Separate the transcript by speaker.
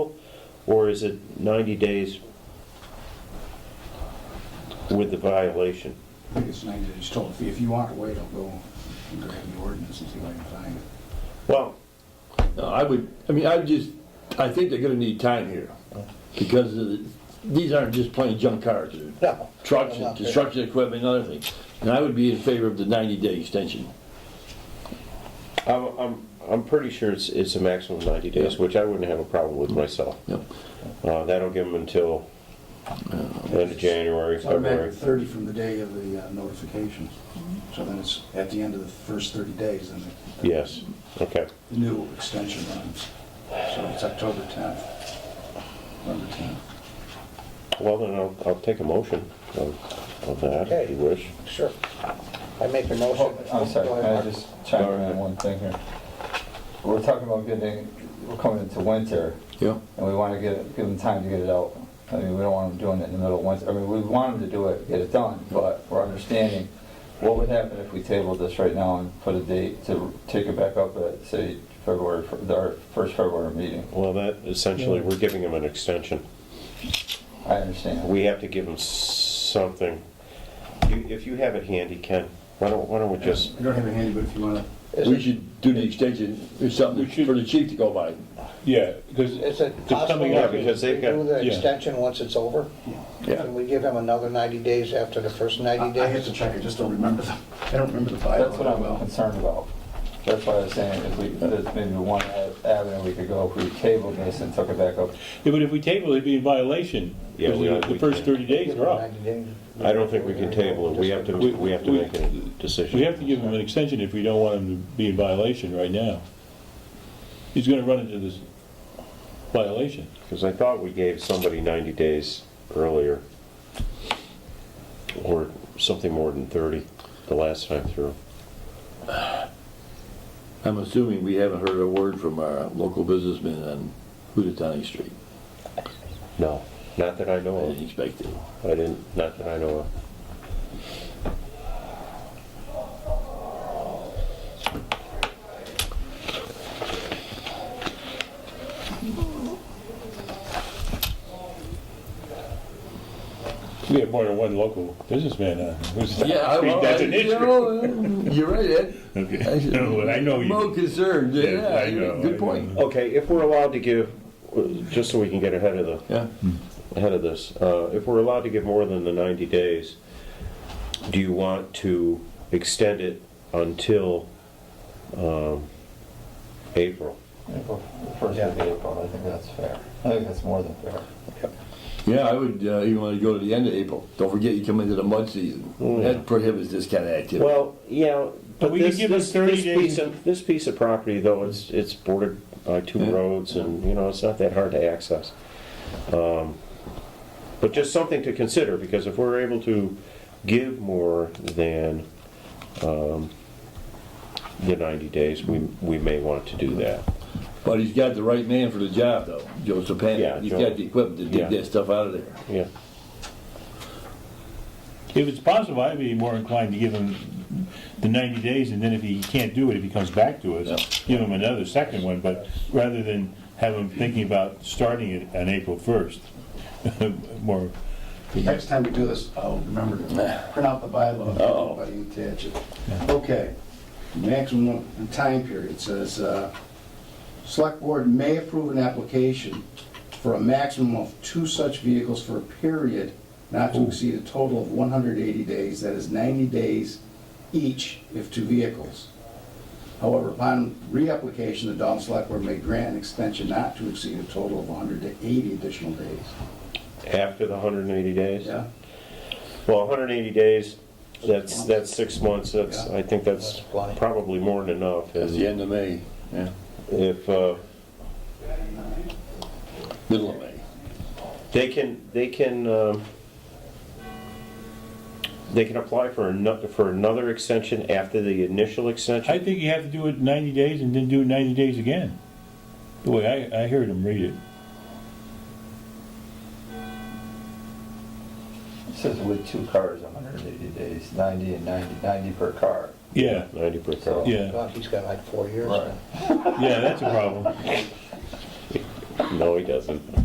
Speaker 1: Or is it 90 days with the violation?
Speaker 2: I think it's ninety days total. If you- If you want to wait, I'll go and grab the ordinance and see what I can find.
Speaker 1: Well,
Speaker 3: No, I would, I mean, I just, I think they're gonna need time here, because of the- these aren't just plain junk cars. they're
Speaker 4: No.
Speaker 3: Trucks and construction equipment and other things, and I would be in favor of the ninety-day extension.
Speaker 1: I'm, I'm, I'm pretty sure it's, it's a maximum of 90 days, which I wouldn't have a problem with myself.
Speaker 3: Yep.
Speaker 1: Uh, That'll give them until end of January,
Speaker 2: It's automatic
Speaker 1: February.
Speaker 2: thirty from the day of the uh, notification. So then it's at the end of the first thirty days, then the-
Speaker 1: Yes, okay.
Speaker 2: the new extension runs. So it's October tenth, November tenth.
Speaker 1: Well, then I'll, I'll take a motion of, of that, if you wish.
Speaker 4: Sure. I make a motion.
Speaker 5: Oh, I'm sorry,
Speaker 4: Go
Speaker 5: can
Speaker 4: ahead,
Speaker 5: I
Speaker 4: Mark.
Speaker 5: just chime in on one thing here? We're talking about getting, we're coming into winter,
Speaker 3: Yeah.
Speaker 5: and we want to get, give them time to get it out. I mean, we don't want them doing it in the middle of winter, I mean, we want them to do it, get it done, but we're understanding what would happen if we tabled this right now and put a date to take it back up at, say, February, fir- our first February meeting.
Speaker 1: Well, that, essentially, we're giving them an extension.
Speaker 5: I understand.
Speaker 1: We have to give them something. You- If you have it handy, Ken, why don't, why don't we just,
Speaker 2: I don't have it handy, but if you want to
Speaker 3: We should do the extension, it's something
Speaker 6: We should-
Speaker 3: for the chief to go by.
Speaker 6: Yeah, because
Speaker 4: Is it
Speaker 6: Just
Speaker 4: possible
Speaker 6: coming
Speaker 1: up
Speaker 4: we
Speaker 1: because they've got-
Speaker 4: do the
Speaker 6: yeah.
Speaker 4: extension once it's over?
Speaker 3: Yeah.
Speaker 4: Can we give him another 90 days after the first 90
Speaker 2: I I have to
Speaker 4: days?
Speaker 2: check, I just don't remember the, I don't remember the bylaw.
Speaker 5: That's what I'm concerned about. That's why I was saying, if we, that's maybe one avenue we could go, if we tabled this and took it back up
Speaker 6: Yeah, but if we table, it'd be in violation.
Speaker 1: Yeah,
Speaker 6: because
Speaker 1: we
Speaker 6: the-
Speaker 1: are- we
Speaker 6: The first
Speaker 1: can't.
Speaker 6: 30 days are up.
Speaker 4: 90 days.
Speaker 1: I don't think we can table it. We have to, we have to make a decision.
Speaker 6: We have to give him an extension if we don't want him to be in violation right now. He's gonna run into this violation.
Speaker 1: Because I thought we gave somebody 90 days earlier, or something more than 30, the last time through.
Speaker 3: I'm assuming we haven't heard a word from our local businessman on Hootenanny Street.
Speaker 1: No, not that I
Speaker 3: I
Speaker 1: know
Speaker 3: didn't
Speaker 1: of.
Speaker 3: expect it.
Speaker 1: I didn't, not that I know of.
Speaker 6: We have more than one local businessman on who's
Speaker 3: Yeah, I, well,
Speaker 6: that's an
Speaker 3: I- you
Speaker 6: issue.
Speaker 3: know, you're right, Ed. I
Speaker 6: Okay.
Speaker 3: should-
Speaker 6: No, I know
Speaker 3: More
Speaker 6: you.
Speaker 3: concerned,
Speaker 6: Yes,
Speaker 3: yeah,
Speaker 6: I know, I
Speaker 3: good point.
Speaker 1: Okay, if we're allowed to give, just so we can get ahead of the,
Speaker 3: Yeah,
Speaker 1: ahead of this, uh, if we're allowed to give more than the 90 days, do you want to extend it until um, April?
Speaker 5: April, first of April, I think that's fair. I think that's more than fair.
Speaker 3: yeah, I would uh, even want to go to the end of April. Don't forget, you come into the mud season. That prohibits this kind of activity.
Speaker 1: Mm. Well, yeah, but
Speaker 6: we could
Speaker 1: this,
Speaker 6: give them
Speaker 1: this,
Speaker 6: 30
Speaker 1: this piece
Speaker 6: days.
Speaker 1: of, this piece of property, though, it's, it's bordered by two
Speaker 3: Yeah.
Speaker 1: roads, and, you know, it's not that hard to access. Um, But just something to consider, because if we're able to give more than, um, the ninety days, we, we may want to do that.
Speaker 3: But he's got the right man for the job, though, Joe
Speaker 1: Yeah,
Speaker 3: Sapan. He's
Speaker 1: Joe.
Speaker 3: got the equipment to
Speaker 1: Yeah.
Speaker 3: dig that stuff out of there.
Speaker 1: Yeah,
Speaker 6: If it's possible, I'd be more inclined to give him the 90 days, and then if he can't do it, if he comes back to us, give him another second one, but rather than have him thinking about starting it on April 1st. More,
Speaker 2: Next time we do this, I'll remember to print out the bylaw,
Speaker 3: Uh-oh.
Speaker 2: everybody attach it. Okay, maximum time period says, uh, select board may approve an application for a maximum of two such vehicles for a period not to exceed a total of 180 days, that is 90 days each if two vehicles. However, upon reapplication, the Dalton Select Board may grant an extension not to exceed a total of 180 additional days.
Speaker 1: after the hundred and eighty days.
Speaker 2: Yeah?
Speaker 1: Well, hundred and eighty days, that's, that's six months, that's,
Speaker 2: Yeah.
Speaker 1: I think that's
Speaker 4: That's plenty.
Speaker 1: probably more than enough.
Speaker 3: That's the end of May, yeah,
Speaker 1: If, uh,
Speaker 3: middle of May.
Speaker 1: They can, they can, um, they can apply for another, for another extension after the initial
Speaker 6: I
Speaker 1: extension?
Speaker 6: think you have to do it 90 days and then do it 90 days again. The way I, I heard him read it.
Speaker 5: It says with two cars, 180 days, 90 and 90, 90 per car.
Speaker 6: Yeah,
Speaker 1: Ninety per
Speaker 5: So-
Speaker 1: car.
Speaker 6: yeah,
Speaker 4: Well, He's got like four years.
Speaker 5: Right.
Speaker 6: yeah, that's a problem.
Speaker 1: No, he doesn't.